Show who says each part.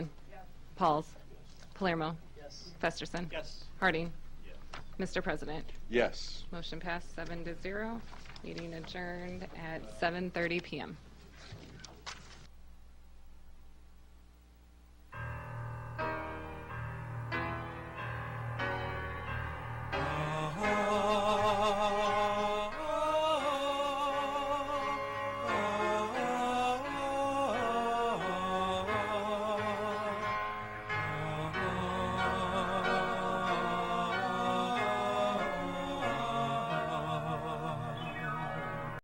Speaker 1: Pauls. Palermo.
Speaker 2: Yes.
Speaker 1: Festerson.
Speaker 2: Yes.
Speaker 1: Harding. Mr. President,
Speaker 3: Yes.
Speaker 1: motion passed seven to zero. Meeting adjourned at 7:30 PM.